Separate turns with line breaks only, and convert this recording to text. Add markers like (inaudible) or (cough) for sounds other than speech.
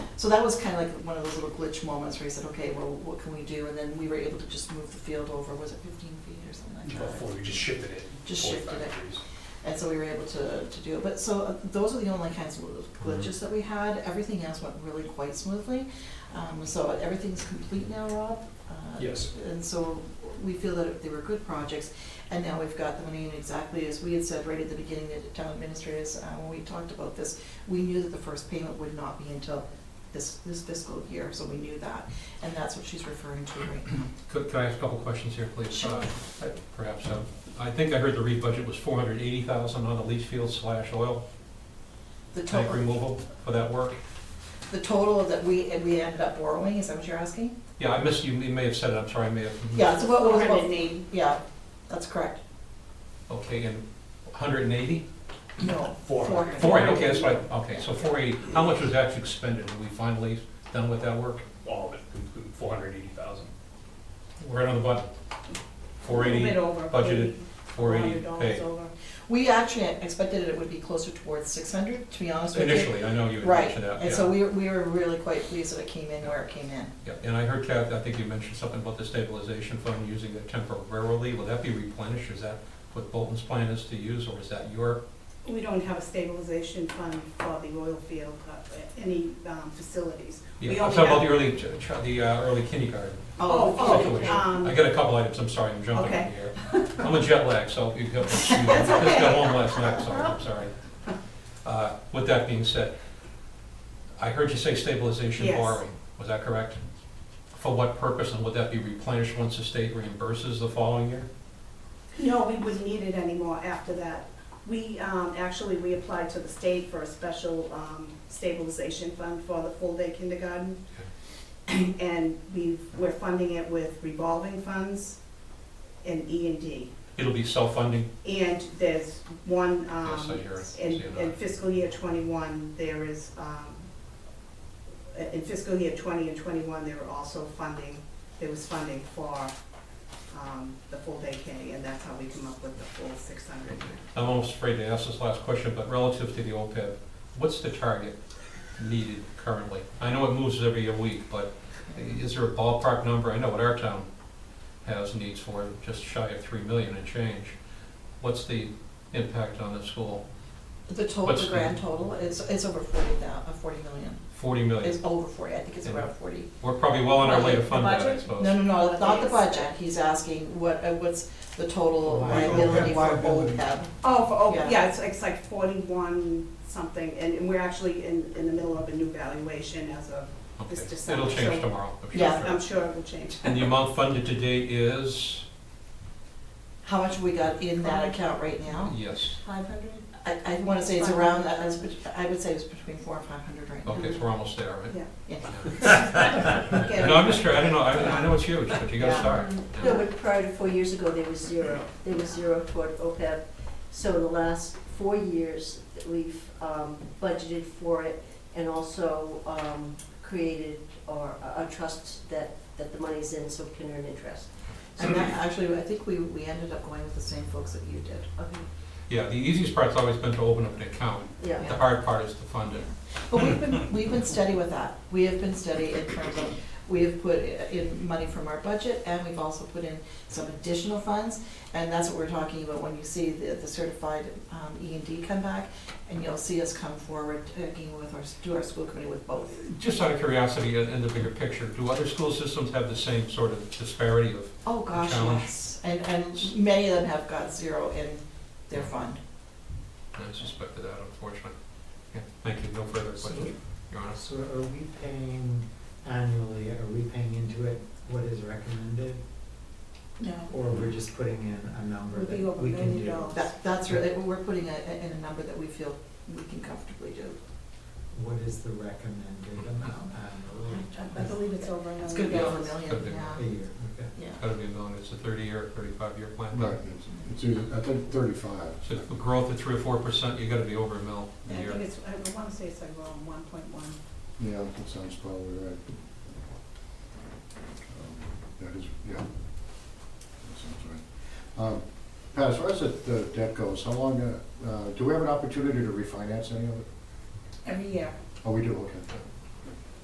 So that was kind of like one of those little glitch moments where he said, okay, well, what can we do? And then we were able to just move the field over, was it fifteen feet or something like that?
Before we just shifted it.
Just
45
shifted it.
degrees.
And so we were able to, to do it. But so uh, those are the only kinds of little glitches that we had. Everything else went really quite smoothly. Um, so everything's complete now, Rob. Uh,
Yes.
And so we feel that they were good projects. And now we've got the money in exactly as we had said right at the beginning, the town administrators, uh, when we talked about this, we knew that the first payment would not be until this, this fiscal year, so we knew that. And that's what she's referring to right now.
Could, could I ask a couple questions here, please?
Sure.
Uh, I- Perhaps, um, I think I heard the REIT budget was four hundred eighty thousand on the leach field slash oil
The
tank
total,
removal for that work.
the total that we, we ended up borrowing, is that what you're asking?
Yeah, I missed, you You may have said it, I'm sorry, I may have.
Yeah, so what was,
Four hundred and
what,
eighty.
yeah, that's correct.
Okay, and hundred and eighty?
No.
Four.
Four, okay, that's right, okay, so four eighty, how much was actually expended, are we finally done with that work?
All of it, four hundred eighty thousand.
Right on the button, four
A
eighty,
bit over.
budgeted, four eighty
$400
paid,
over.
We actually expected it would be closer towards six hundred, to be honest with you.
initially, I know you had
Right,
mentioned that,
and
yeah.
so we, we were really quite pleased that it came in where it came in.
Yeah, and I heard Kath, I think you mentioned something about the stabilization fund using it temporarily. Will that be replenished? Is that what Bolton's plan is to use, or is that your?
We don't have a stabilization fund for the oil field, uh, any um, facilities. We
Yeah, I'm
only
talking about
have-
the early, ch- ch- the uh, early kindergarten
Oh,
situation.
oh, um,
I got a couple items, I'm sorry, I'm jumping
Okay.
in here. I'm a jet lag, so
(laughs)
you have to excuse me. I just got home last night, so I'm sorry. Uh, With that being said, I heard you say stabilization
Yes.
borrowing. Was that correct? For what purpose, and would that be replenished once the state reimburses the following year?
No, we wouldn't need it anymore after that. We, um, actually, we applied to the state for a special um, stabilization fund for the full-day kindergarten. And we, we're funding it with revolving funds and E and D.
It'll be self-funding?
And there's one,
Yes, I
um,
hear it.
in
See it
in
on.
fiscal year twenty-one, there is, um, in fiscal year twenty and twenty-one, there were also funding, there was funding for, um, the full day K, and that's how we come up with the full six hundred.
I'm almost afraid to ask this last question, but relative to the OPEB, what's the target needed currently? I know it moves every week, but is there a ballpark number? I know what our town has needs for, just shy of three million and change. What's the impact on the school?
The total,
What's
the
the-
grand total is, is over forty thou, uh, forty million,
Forty million.
it's over forty, I think it's
Yeah.
around forty.
We're probably well on our way to fund that, I
Budget?
suppose.
No, no, no, not the
Yes.
budget, he's asking what, uh, what's the total
Oh,
liability
liability.
for OPEB.
Oh, for,
Yeah.
oh, yeah, it's, it's like forty-one something, and, and we're actually in, in the middle of a new valuation as of,
Okay.
It's just-
It'll
so- um,
change tomorrow, I'm sure.
Yeah.
I'm sure it will change.
And the amount funded to date is,
How much we got in that account right now?
yes,
Five hundred? I, I wanna say it's around, that. it's bet- I would say it's between four and five hundred right now.
okay, so we're almost there,
(laughs)
right?
Yeah.
Yeah. No, I'm just, trying- I don't know, I I know it's huge, but you gotta
Yeah.
start.
No, but prior to four years ago, there was zero. There was zero toward OPEB. So the last four years, we've um, budgeted for it and also um, created or a a trust that, that the money's in so it can earn interest.
And that, actually, I think we, we ended up going with the same folks that you did.
Okay,
Yeah, the easiest part's always been to open up an account.
yeah.
The hard part is to fund it.
But we've been, we've been steady with that. We have been steady in terms of, we have put in money from our budget and we've also put in some additional funds. And that's what we're talking about when you see the, the certified, um, E and D come back. And you'll see us come forward, taking with our, do our school committee with both.
Just out of curiosity, uh, in in the bigger picture, do other school systems have the same sort of disparity of,
Oh, gosh,
Challenge.
yes. And, and many of them have got zero in their fund.
I suspect of that, unfortunately. Yeah, Thank you, no further
So-
questions, Your Honor.
So are we paying annually, are we paying into it what is recommended?
No.
Or we're just putting in a number
Would
that
be over a
we can
million
do?
dollars.
That, that's really, we're putting a, a- in a number that we feel we can comfortably do.
What is the recommended amount
I
annually?
believe it's over a million.
It's gonna be over a
dollars.
Could
million, yeah,
be.
A year, okay.
yeah.
Gotta be a million, it's a thirty-year, thirty-five-year plan.
Right, it's, it's, either- I think thirty-five.
So if the growth of three or four percent, you gotta be over a mil
And
a
I
year.
think it's, I wanna say it's like around one point one.
Yeah, that sounds probably right. Um, That is, yeah. That sounds right. Um, Pat, as far as the- the debt goes, how long, uh, uh, do we have an opportunity to refinance any of it?
Every year.
Oh, we do, okay.